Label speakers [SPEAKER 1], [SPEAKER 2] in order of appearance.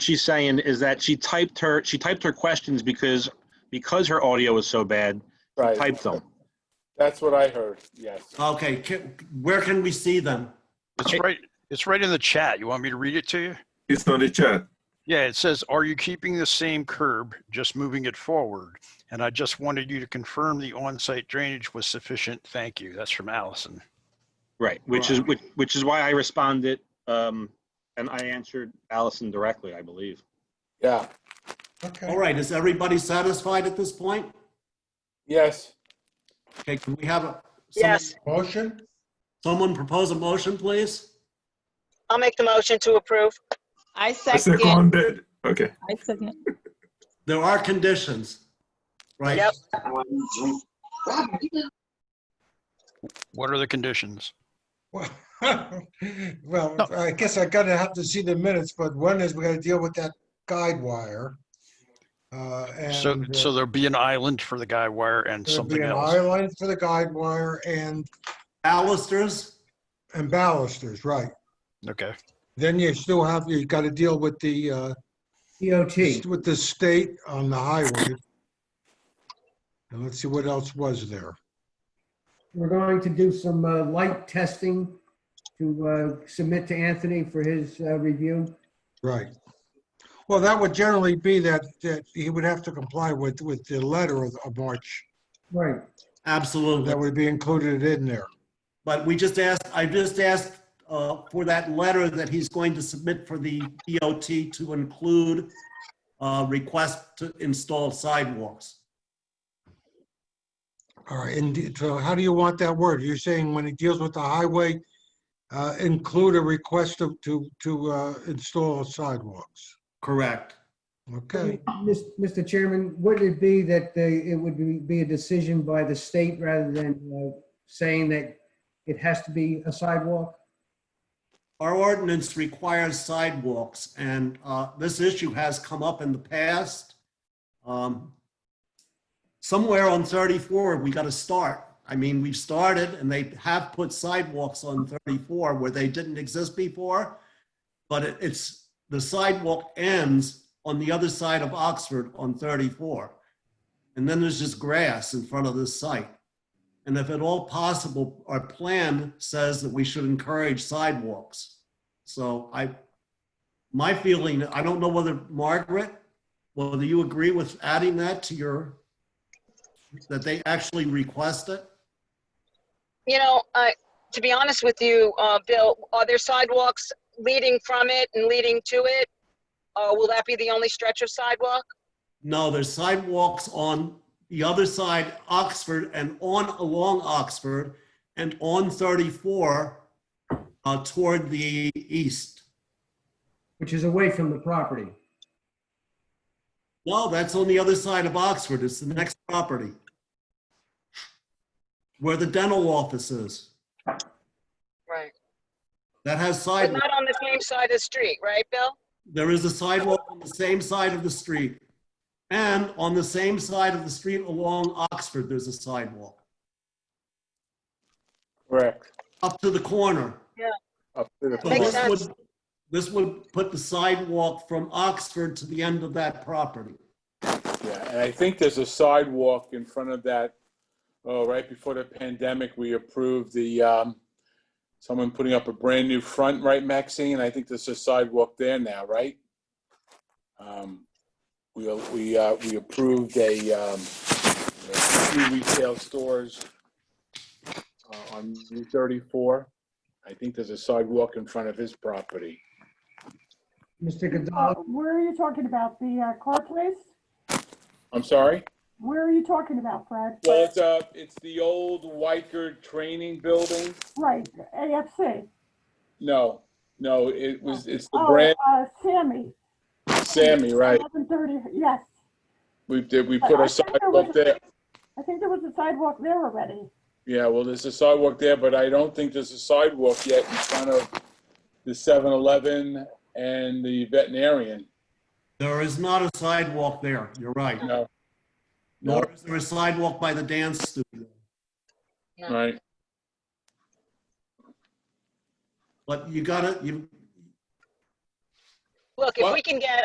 [SPEAKER 1] she's saying is that she typed her, she typed her questions because, because her audio was so bad,
[SPEAKER 2] Right.
[SPEAKER 1] typed them.
[SPEAKER 2] That's what I heard, yes.
[SPEAKER 3] Okay, can- where can we see them?
[SPEAKER 4] It's right, it's right in the chat. You want me to read it to you?
[SPEAKER 5] It's on the chat.
[SPEAKER 4] Yeah, it says, are you keeping the same curb, just moving it forward? And I just wanted you to confirm the on-site drainage was sufficient. Thank you. That's from Allison.
[SPEAKER 1] Right, which is, which, which is why I responded, um, and I answered Allison directly, I believe.
[SPEAKER 2] Yeah,
[SPEAKER 3] All
[SPEAKER 6] Okay,
[SPEAKER 3] right, is everybody satisfied at this point?
[SPEAKER 2] yes,
[SPEAKER 3] Okay, can we have a?
[SPEAKER 7] Yes.
[SPEAKER 6] motion?
[SPEAKER 3] Someone propose a motion, please?
[SPEAKER 7] I'll make the motion to approve.
[SPEAKER 8] I
[SPEAKER 5] I
[SPEAKER 8] second. it.
[SPEAKER 5] seconded. Okay.
[SPEAKER 8] I second. it.
[SPEAKER 3] There are conditions, right?
[SPEAKER 7] Yep.
[SPEAKER 4] What are the conditions?
[SPEAKER 6] Well, I guess I gotta have to see the minutes, but one is we gotta deal with that guide wire. Uh,
[SPEAKER 4] So,
[SPEAKER 6] and, uh,
[SPEAKER 4] so there'll be an island for the guy wire and
[SPEAKER 6] there'll be
[SPEAKER 4] something
[SPEAKER 6] an
[SPEAKER 4] else.
[SPEAKER 6] eye line for the guide wire and,
[SPEAKER 3] Balusters,
[SPEAKER 6] and balusters, right.
[SPEAKER 4] Okay.
[SPEAKER 6] Then you still have, you gotta deal with the, uh,
[SPEAKER 9] DOT.
[SPEAKER 6] with the state on the highway. And let's see what else was there.
[SPEAKER 9] We're going to do some uh, light testing to uh, submit to Anthony for his uh, review.
[SPEAKER 6] Right. Well, that would generally be that, that he would have to comply with, with the letter of, of March.
[SPEAKER 9] Right.
[SPEAKER 3] absolutely.
[SPEAKER 6] That would be included in there.
[SPEAKER 3] But we just asked, I just asked uh, for that letter that he's going to submit for the DOT to include uh, request to install sidewalks.
[SPEAKER 6] All right, and d- so how do you want that word? You're saying when he deals with the highway, uh, include a request of, to, to, uh, install sidewalks?
[SPEAKER 3] Correct.
[SPEAKER 6] Okay,
[SPEAKER 9] Mis- Mr. Chairman, would it be that they- it would be- be a decision by the state rather than uh, saying that it has to be a sidewalk?
[SPEAKER 3] Our ordinance requires sidewalks, and uh, this issue has come up in the past. Um, Somewhere on 34, we got to start. I mean, we've started, and they have put sidewalks on 34 where they didn't exist before, but it- it's, the sidewalk ends on the other side of Oxford on 34. And then there's just grass in front of this site. And if at all possible, our plan says that we should encourage sidewalks. So I, my feeling, I don't know whether Margaret, whether you agree with adding that to your, that they actually request it?
[SPEAKER 7] You know, I, to be honest with you, uh, Bill, are there sidewalks leading from it and leading to it? Uh, will that be the only stretch of sidewalk?
[SPEAKER 3] No, there's sidewalks on the other side, Oxford and on along Oxford and on 34 uh, toward the east.
[SPEAKER 9] Which is away from the property.
[SPEAKER 3] No, that's on the other side of Oxford. It's the next property. Where the dental office is.
[SPEAKER 7] Right.
[SPEAKER 3] That has
[SPEAKER 7] But
[SPEAKER 3] sidewalk.
[SPEAKER 7] not on the same side of the street, right, Bill?
[SPEAKER 3] There is a sidewalk on the same side of the street. And on the same side of the street along Oxford, there's a sidewalk.
[SPEAKER 2] correct,
[SPEAKER 3] Up to the corner.
[SPEAKER 2] up to the
[SPEAKER 3] So
[SPEAKER 7] Makes
[SPEAKER 3] this
[SPEAKER 2] point.
[SPEAKER 7] sense.
[SPEAKER 3] would, this would put the sidewalk from Oxford to the end of that property.
[SPEAKER 2] Yeah, and I think there's a sidewalk in front of that, oh, right before the pandemic, we approved the, um, someone putting up a brand new front, right, Maxine? I think there's a sidewalk there now, right? Um, we, we, uh, we approved a, um, a few retail stores uh, on Route thirty-four. I think there's a sidewalk in front of his property.
[SPEAKER 9] Mr.
[SPEAKER 10] Uh,
[SPEAKER 9] Gonzalez,
[SPEAKER 10] Where are you talking about? The uh, car place?
[SPEAKER 2] I'm sorry?
[SPEAKER 10] Where are you talking about, Brad?
[SPEAKER 2] Well, it's, uh, it's the old Weicker Training Building.
[SPEAKER 10] Right, AFC.
[SPEAKER 2] No, no, it was, it's the
[SPEAKER 10] Oh,
[SPEAKER 2] brand
[SPEAKER 10] uh, Sammy.
[SPEAKER 2] Sammy, right?
[SPEAKER 10] 1130, yes.
[SPEAKER 2] We did, we put
[SPEAKER 10] I
[SPEAKER 2] a
[SPEAKER 10] think there was
[SPEAKER 2] sidewalk
[SPEAKER 10] a-
[SPEAKER 2] there.
[SPEAKER 10] I think there was a sidewalk there already.
[SPEAKER 2] Yeah, well, there's a sidewalk there, but I don't think there's a sidewalk yet in front of the 7-Eleven and the veterinarian.
[SPEAKER 3] There is not a sidewalk there. You're right.
[SPEAKER 2] No,
[SPEAKER 3] Nor is there a sidewalk by the dance studio.
[SPEAKER 2] right?
[SPEAKER 3] But you gotta, you,
[SPEAKER 7] Look, if
[SPEAKER 2] Well-
[SPEAKER 7] we can get